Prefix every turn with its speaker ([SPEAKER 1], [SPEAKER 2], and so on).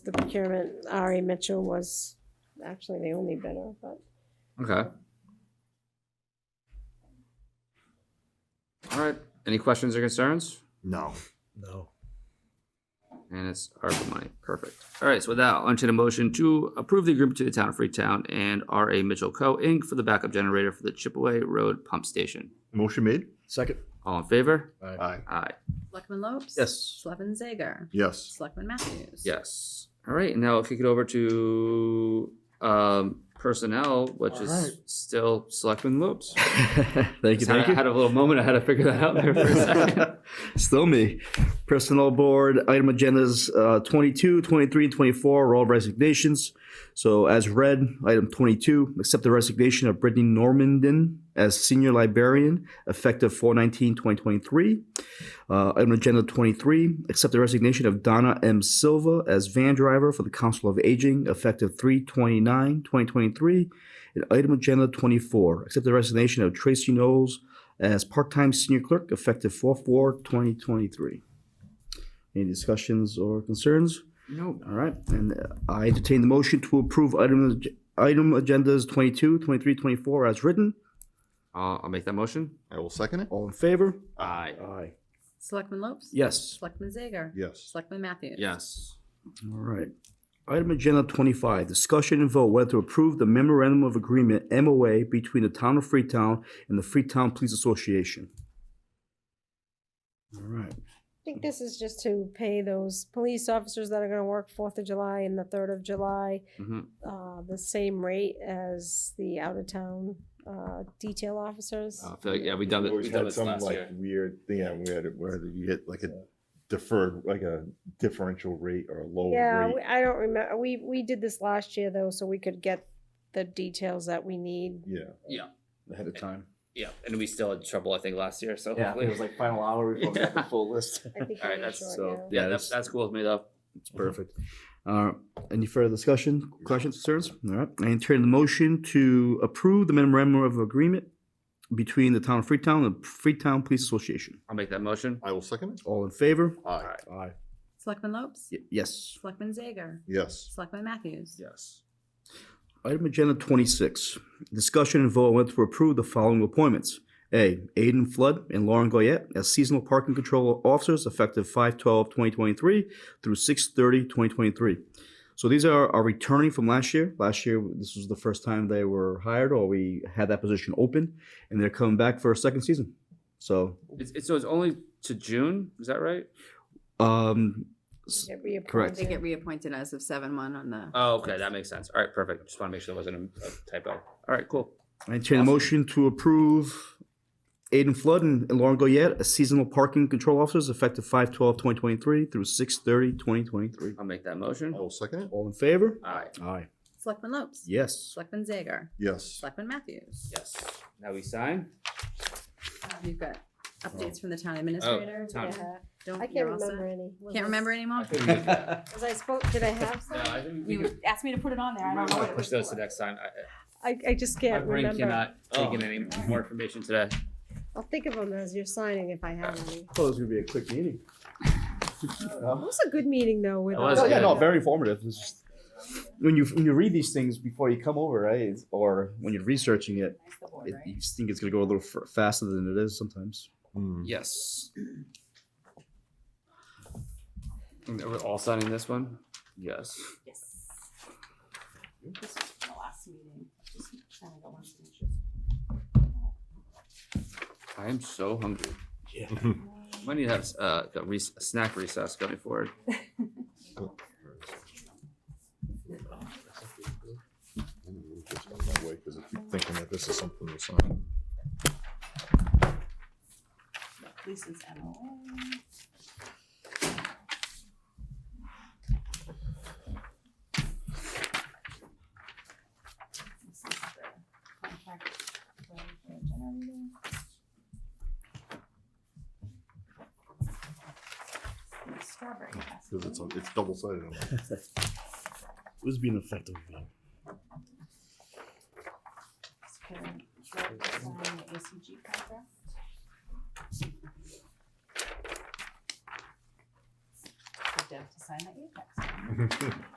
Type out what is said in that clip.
[SPEAKER 1] the procurement, Ari Mitchell was actually the only bidder, but
[SPEAKER 2] Okay. All right. Any questions or concerns?
[SPEAKER 3] No.
[SPEAKER 4] No.
[SPEAKER 2] And it's ARPA money. Perfect. All right. So with that, I'll entertain a motion to approve the agreement to the town of Freetown and R.A. Mitchell Co. Inc. for the backup generator for the Chipaway Road Pump Station.
[SPEAKER 3] Motion made?
[SPEAKER 4] Second.
[SPEAKER 2] All in favor?
[SPEAKER 3] Aye.
[SPEAKER 2] Aye.
[SPEAKER 5] Selectman Lopes?
[SPEAKER 4] Yes.
[SPEAKER 5] Selectman Zager?
[SPEAKER 3] Yes.
[SPEAKER 5] Selectman Matthews?
[SPEAKER 2] Yes. All right. and Now I'll kick it over to um, personnel, which
[SPEAKER 4] All
[SPEAKER 2] is
[SPEAKER 4] right.
[SPEAKER 2] still Selectman Lopes.
[SPEAKER 4] thank you.
[SPEAKER 2] Just had,
[SPEAKER 4] Thank
[SPEAKER 2] I
[SPEAKER 4] you.
[SPEAKER 2] had a little moment. I had to figure that out there for a second.
[SPEAKER 4] Still me. Personnel board, item agendas uh, 22, 23, and 24 are all resignations. So as read, item 22, accept the resignation of Brittany Normandin as senior librarian effective 4/19/2023. Uh, Item agenda 23, accept the resignation of Donna M. Silva as van driver for the Council of Aging effective 3/29/2023. And item agenda 24, accept the resignation of Tracy Knowles as part-time senior clerk effective 4/4/2023. Any discussions or concerns?
[SPEAKER 2] Nope.
[SPEAKER 4] All right, and uh, I entertain the motion to approve item, item agendas 22, 23, 24 as written.
[SPEAKER 2] I'll, I'll make that motion.
[SPEAKER 3] I will second it.
[SPEAKER 4] All in favor?
[SPEAKER 2] Aye.
[SPEAKER 4] Aye.
[SPEAKER 5] Selectman Lopes?
[SPEAKER 4] Yes.
[SPEAKER 5] Selectman Zager?
[SPEAKER 3] Yes.
[SPEAKER 5] Selectman Matthews?
[SPEAKER 2] Yes.
[SPEAKER 4] All right. Item agenda 25, discussion and vote whether to approve the memorandum of agreement MOA between the town of Freetown and the Freetown Police Association. All right.
[SPEAKER 1] I think this is just to pay those police officers that are gonna work Fourth of July and the Third of July,
[SPEAKER 2] hmm
[SPEAKER 1] uh, the same rate as the out-of-town, uh, detail officers.
[SPEAKER 2] I feel like, yeah, we done it. We
[SPEAKER 3] Uh, Always
[SPEAKER 2] done
[SPEAKER 3] had
[SPEAKER 2] this
[SPEAKER 3] some
[SPEAKER 2] last
[SPEAKER 3] like
[SPEAKER 2] year.
[SPEAKER 3] weird thing, yeah, we had it where you get like a deferred, like a differential rate or a
[SPEAKER 1] Yeah,
[SPEAKER 3] lower
[SPEAKER 1] we-
[SPEAKER 3] rate.
[SPEAKER 1] I don't remember, we, we did this last year though, so we could get the details that we need.
[SPEAKER 3] Yeah.
[SPEAKER 2] Yeah.
[SPEAKER 6] ahead of time.
[SPEAKER 2] Yeah. And we still had trouble, I think, last year. So
[SPEAKER 6] Yeah, I
[SPEAKER 2] hopefully
[SPEAKER 6] think it was like final hour before we got the
[SPEAKER 2] Yeah.
[SPEAKER 6] full list.
[SPEAKER 1] I think
[SPEAKER 2] All
[SPEAKER 1] we
[SPEAKER 2] right.
[SPEAKER 1] were
[SPEAKER 2] That's
[SPEAKER 1] short,
[SPEAKER 2] so.
[SPEAKER 1] yeah.
[SPEAKER 2] Yeah.
[SPEAKER 4] Yeah,
[SPEAKER 2] That's
[SPEAKER 4] that's-
[SPEAKER 2] that's cool. It's made up.
[SPEAKER 4] It's perfect. Uh, Any further discussion, questions, concerns? All right, I entertain the motion to approve the memorandum of agreement between the town of Freetown and the Freetown Police Association.
[SPEAKER 2] I'll make that motion.
[SPEAKER 3] I will second it.
[SPEAKER 4] All in favor?
[SPEAKER 3] Aye.
[SPEAKER 4] Aye.
[SPEAKER 5] Selectman Lopes?
[SPEAKER 4] Yes.
[SPEAKER 5] Selectman Zager?
[SPEAKER 3] Yes.
[SPEAKER 5] Selectman Matthews?
[SPEAKER 2] Yes.
[SPEAKER 4] Item agenda twenty-six, discussion and vote whether to approve the following appointments. A, Aidan Flood and Lauren Goyette as seasonal parking control officers effective 5-12-2023 through 6-30-2023. So these are, are returning from last year. Last year, this was the first time they were hired or we had that position open and they're coming back for a second season. So,
[SPEAKER 2] It's, it's so it's only to June. Is that right?
[SPEAKER 4] um,
[SPEAKER 1] We get reappointed.
[SPEAKER 4] Correct.
[SPEAKER 5] They get reappointed as of seven one on the.
[SPEAKER 2] Oh, okay. That makes sense. All right. Perfect. Just want to make sure there wasn't a, a typo. All right. Cool.
[SPEAKER 4] I entertain a
[SPEAKER 2] Awesome.
[SPEAKER 4] motion to approve Aidan Flood and Lauren Goyette as seasonal parking control officers effective 5-12-2023 through 6-30-2023.
[SPEAKER 2] I'll make that motion.
[SPEAKER 3] I will second it.
[SPEAKER 4] All in favor?
[SPEAKER 2] Aye.
[SPEAKER 4] Aye.
[SPEAKER 5] Selectman Lopes?
[SPEAKER 4] Yes.
[SPEAKER 5] Selectman Zager?
[SPEAKER 3] Yes.
[SPEAKER 5] Selectman Matthews?
[SPEAKER 2] Yes. Now we sign.
[SPEAKER 5] Um, You've got updates from the town administrator?
[SPEAKER 2] Oh. town-
[SPEAKER 1] Yeah.
[SPEAKER 5] Don't-
[SPEAKER 1] I can't
[SPEAKER 5] you're all set?
[SPEAKER 1] remember any. Was
[SPEAKER 5] Can't
[SPEAKER 1] I-
[SPEAKER 5] remember anymore?
[SPEAKER 1] Was I spoke, did I have
[SPEAKER 2] No, I
[SPEAKER 1] some?
[SPEAKER 2] think we
[SPEAKER 5] You
[SPEAKER 2] could
[SPEAKER 5] asked me to put it on there. I don't know what it
[SPEAKER 2] push
[SPEAKER 5] was
[SPEAKER 2] those to
[SPEAKER 5] for.
[SPEAKER 2] next time. I- I-
[SPEAKER 1] I, I just
[SPEAKER 2] My
[SPEAKER 1] can't
[SPEAKER 2] brain
[SPEAKER 1] remember.
[SPEAKER 2] cannot take in any more information today.
[SPEAKER 1] I'll think of them as you're signing if I have any.
[SPEAKER 4] Thought it was gonna be a quick meeting.
[SPEAKER 1] It was a good meeting though with. uh,
[SPEAKER 2] It was
[SPEAKER 1] all-
[SPEAKER 2] good. Oh, Yeah, no,
[SPEAKER 4] very informative. It's just- When you, when you read these things before you come over, right, it's- or when you're researching it, it, you just think it's gonna go a little f- faster than it is sometimes.
[SPEAKER 3] Hmm.
[SPEAKER 2] Yes. And We're all signing this one? Yes.
[SPEAKER 5] Yes. This was from the last meeting. Just kind of got one signature.
[SPEAKER 2] I am so hungry. I need to have uh, a rec- a snack recess going forward.
[SPEAKER 3] Just on that way, 'cause I keep Thinking that this is something to sign.
[SPEAKER 5] Lisa's MOA. This is the contract for the generator. And the Strawberry. has
[SPEAKER 3] Cause it's,
[SPEAKER 5] one.
[SPEAKER 3] it's double sided.
[SPEAKER 4] Who's being effective?
[SPEAKER 5] Just put in George signing the ACG contract.
[SPEAKER 1] I
[SPEAKER 5] Deb to sign that you text.